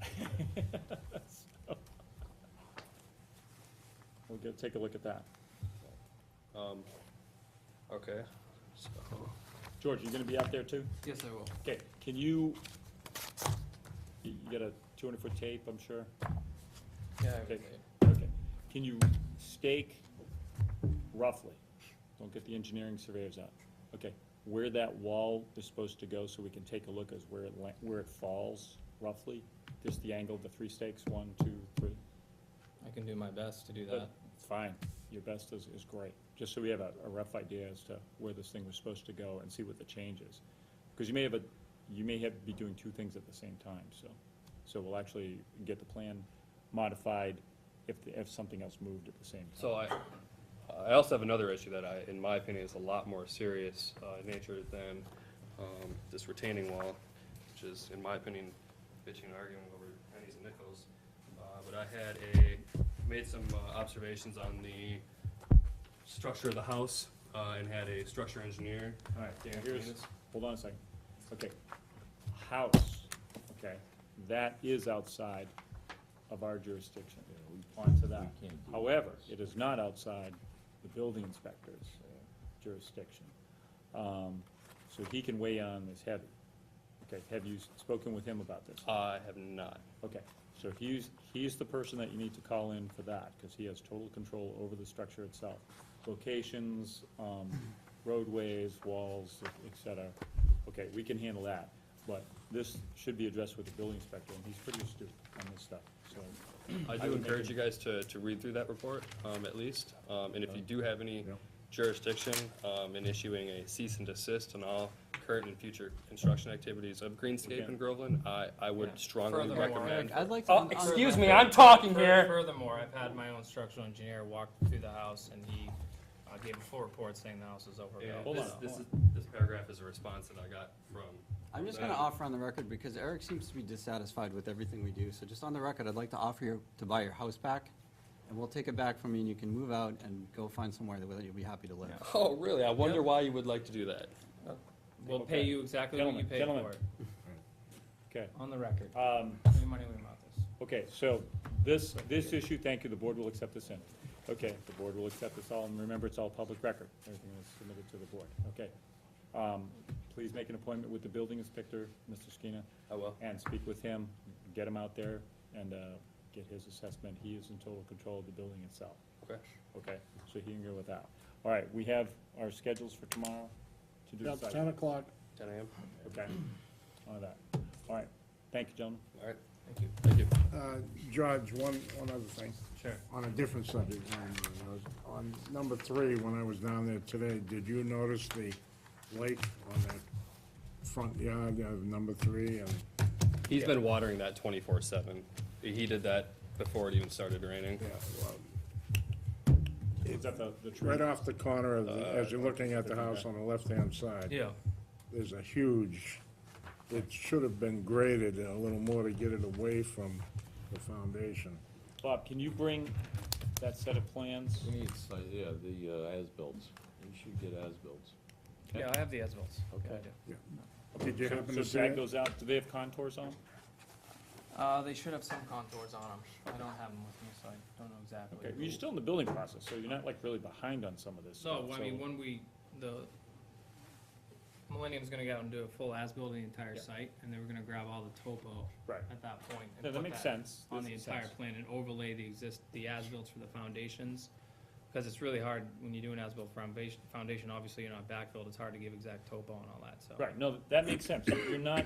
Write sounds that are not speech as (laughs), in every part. (laughs) go take a look at that. Um, okay, so, George, you gonna be out there too? Yes, I will. Okay, can you, you you got a two hundred foot tape, I'm sure? Yeah, I Okay, will. okay. Can you stake roughly, don't get the engineering surveyors out, okay, where that wall is supposed to go so we can take a look as where it, la- where it falls roughly? Just the angle of the three stakes, one, two, three? I can do my best to do But that. it's Fine, your best is, is great, just so we have a, a rough idea as to where this thing was supposed to go and see what the change is. Because you may have a, you may have, be doing two things at the same time, so, so we'll actually get the plan modified if, the- if something else moved at the same time. so I, I also have another issue that I, in my opinion, is a lot more serious, uh, in nature than, um, this retaining wall, which is, in my opinion, bitching and arguing over pennies and nickels. Uh, but I had a, made some uh, observations on the structure of the house, uh, and had a structure engineer. All right, Dan here's, Canis. hold on a second, okay, house, okay, that is outside of our jurisdiction, onto that. we can't do However, it is not outside the building inspector's uh, jurisdiction. Um, so he can weigh on this heavy. Okay, have you spoken with him about this? I have not. Okay, so he's, he's the person that you need to call in for that, because he has total control over the structure itself. Locations, um, roadways, walls, et cetera. Okay, we can handle that, but this should be addressed with the building inspector, and he's pretty astute on this stuff, so. I I do would encourage you make guys to, to read through that report, um, at least, um, and if you do have any Yeah. jurisdiction, um, in issuing a cease and desist on all current and future construction activities of Greenscape Okay. in Groveland, I, I Yeah. would strongly Furthermore, recommend. I'd like to. Oh, un- excuse Further- me, I'm talking fur- here. Furthermore, I've had my own structural engineer walk through the house and he uh, gave a full report saying the house is Yeah, overbuilt. Hold this, on, this hold is, this paragraph is a response that I got from. I'm just gonna offer on the record, because Eric seems to be dissatisfied with everything we do, so just on the record, I'd like to offer you to buy your house back, and we'll take it back from you, and you can move out and go find somewhere that you'll be happy to live. (laughs) Oh, really? I wonder why you would like to do that. We'll pay you exactly what you Gentlemen, paid gentlemen. for it. Okay, On the record. um, Give me money, we mouth this. Okay, so this, this issue, thank you, the board will accept this in. Okay, the board will accept this all, and remember, it's all public record, everything is submitted to the board, okay? Um, Please make an appointment with the building inspector, Mr. Skeena, I will. and speak with him, get him out there and uh, get his assessment. He is in total control of the building itself, Okay. okay? So he can go with that. All right, we have our schedules for tomorrow to do the Yep, site. ten o'clock. Ten AM. Okay, all that. All right, thank you, gentlemen. All right. Thank you. Thank you. Uh, George, one, one other thing, Sure. on a different subject, on, uh, on number three, when I was down there today, did you notice the lake on the front yard of number three and? He's been watering that twenty-four seven. He did that before it even started raining. yeah, well, Is that the, the tree? Right off the corner of, Uh, the- as you're looking at the house on the left-hand side. Yeah, There's a huge, it should have been graded a little more to get it away from the foundation. Bob, can you bring that set of plans? We need, si- yeah, the uh, as-bills. We should get as-bills. yeah, I have the as-bills. Okay. Did you happen So to see drag it? those out, do they have contours on? 'em? Yeah. Uh, they should have some contours on them. I don't have them with me, so I don't know exactly. Okay, well, you're still in the building process, so you're not like really behind on some of this stuff. No, I mean, when we, the, Millennium's gonna go out and do a full as-built of the entire Yeah. site, and then we're gonna grab all the topo Right. at that point. and No, that put makes sense. On This the makes entire sense. plan and overlay the exist, the as-built for the foundations, because it's really hard, when you do an as-built foundation, foundation, obviously you're not backfilled, it's hard to give exact topo and all that, so. Right, no, that makes sense, you're not,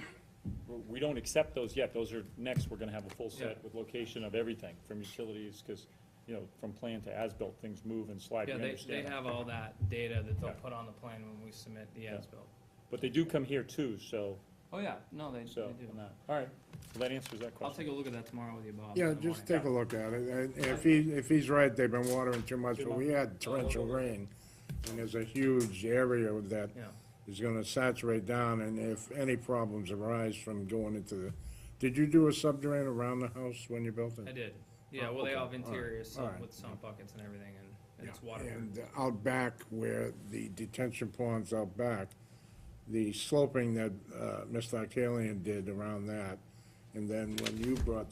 we don't accept those yet, those are, next, we're gonna have a full set Yeah. with location of everything, from utilities, cause, you know, from plan to as-built, things move and slide, we Yeah, they, they understand. that. have all that data that they'll Yeah. put on the plan when we submit the Yeah. as-built. But they do come here too, so, Oh, yeah, no, they, they so, do. no. all right, well, that answers that I'll question. take a look at that tomorrow with you, Bob. in Yeah, the morning. just take a look at it, and if he, if he's right, they've been watering too much, but we had torrential rain, and there's a huge area that Yeah. is gonna saturate down, and if any problems arise from going into the, did you do a subdrain around the house when you built it? I did. Yeah, Oh, well, they okay. all have All right. interior sump All right. with sump buckets and everything, and, and it's Yeah, waterproof. And out back where the detention ponds out back, the sloping that, uh, Mr. Arcalian did around that, and then when you brought